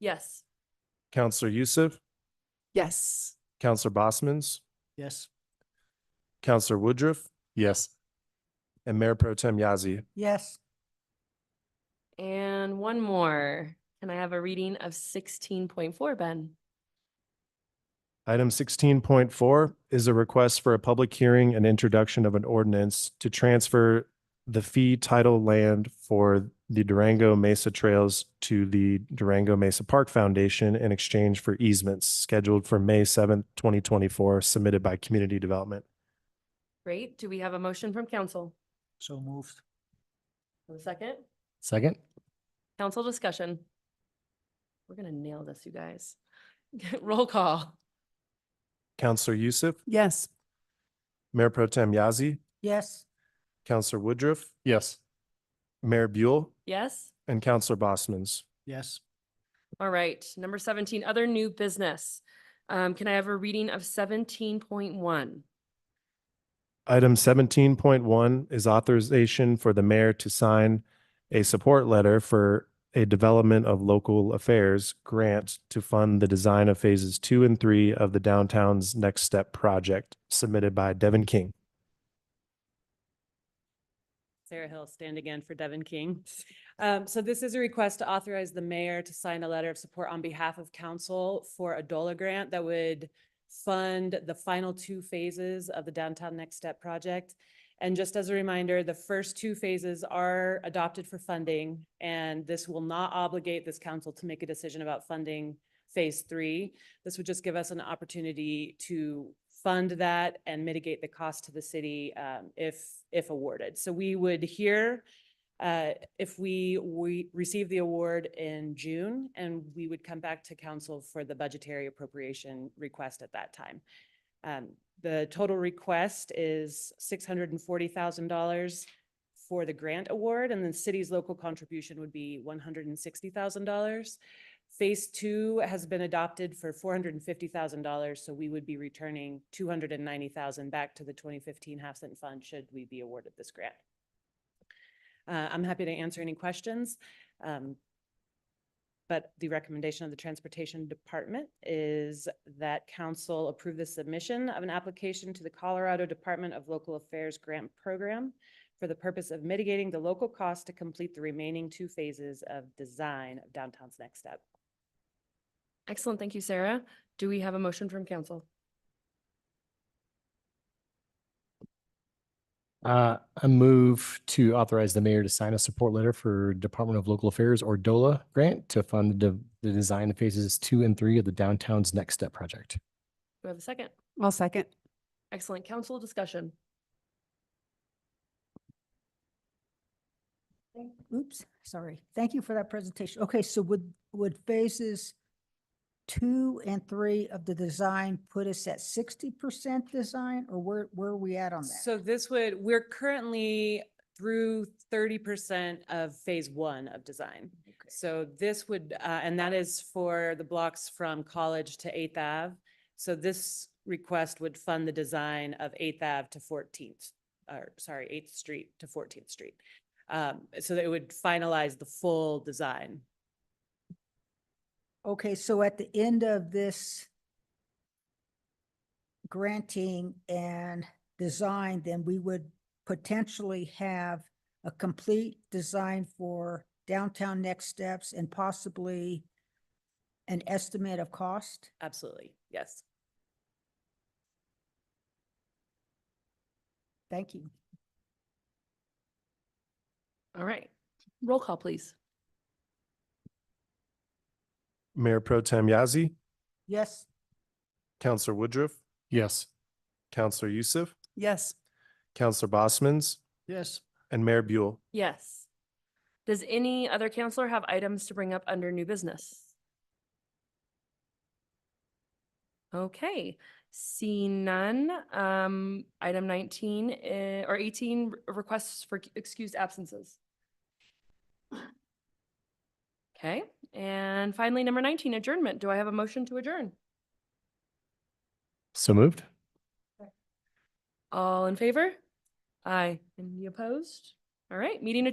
Yes. Counselor Youssef, Yes. Counselor Bosman's, Yes. Counselor Woodruff, Yes. and Mayor Pro Tem Yazi. Yes. And one more. Can I have a reading of sixteen point four, Ben? Item sixteen point four is a request for a public hearing and introduction of an ordinance to transfer the fee title land for the Durango Mesa Trails to the Durango Mesa Park Foundation in exchange for easements scheduled for May seventh, twenty twenty-four, submitted by Community Development. Great. Do we have a motion from council? So moved. A second? Second? Council discussion. We're gonna nail this, you guys. Roll call. Counselor Youssef, Yes. Mayor Pro Tem Yazi, Yes. Counselor Woodruff, Yes. Mayor Buell, Yes? and Counselor Bosman's. Yes. All right. Number seventeen, other new business. Um, can I have a reading of seventeen point one? Item seventeen point one is authorization for the mayor to sign a support letter for a Development of Local Affairs grant to fund the design of phases two and three of the downtown's Next Step project submitted by Devin King. Sarah Hill, stand again for Devin King. Um, so this is a request to authorize the mayor to sign a letter of support on behalf of council for a DOLA grant that would fund the final two phases of the Downtown Next Step project. And just as a reminder, the first two phases are adopted for funding, and this will not obligate this council to make a decision about funding phase three. This would just give us an opportunity to fund that and mitigate the cost to the city um, if, if awarded. So we would hear uh, if we, we receive the award in June and we would come back to council for the budgetary appropriation request at that time. Um, The total request is six hundred and forty thousand dollars for the grant award and the city's local contribution would be one hundred and sixty thousand dollars. Phase two has been adopted for four hundred and fifty thousand dollars, so we would be returning two hundred and ninety thousand back to the twenty fifteen half cent fund should we be awarded this grant. Uh, I'm happy to answer any questions. um, But the recommendation of the Transportation Department is that council approve the submission of an application to the Colorado Department of Local Affairs Grant Program for the purpose of mitigating the local cost to complete the remaining two phases of design of downtown's next step. Excellent. Thank you, Sarah. Do we have a motion from council? Uh, I move to authorize the mayor to sign a support letter for Department of Local Affairs or DOLA grant to fund the, de- the design of phases two and three of the downtown's next step project. Do we have a second? I'll second. Excellent. Council discussion. Oops, sorry. Thank you for that presentation. Okay, so would, would phases two and three of the design put us at sixty percent design or where, where are we at on that? So this would, we're currently through thirty percent of phase one of design. Okay. So this would, uh, and that is for the blocks from College to Eighth Ave. So this request would fund the design of Eighth Ave to Fourteenth, or sorry, Eighth Street to Fourteenth Street. Um, so that it would finalize the full design. Okay, so at the end of this granting and design, then we would potentially have a complete design for downtown next steps and possibly an estimate of cost? Absolutely, yes. Thank you. All right. Roll call, please. Mayor Pro Tem Yazi, Yes? Counselor Woodruff, Yes. Counselor Youssef, Yes. Counselor Bosman's, Yes. and Mayor Buell. Yes. Does any other counselor have items to bring up under new business? Okay, seeing none, um, item nineteen, eh, or eighteen, re- requests for c- excused absences. Okay, and finally, number nineteen, adjournment. Do I have a motion to adjourn? So moved? All in favor? Aye. Any opposed? All right, meeting adjourned.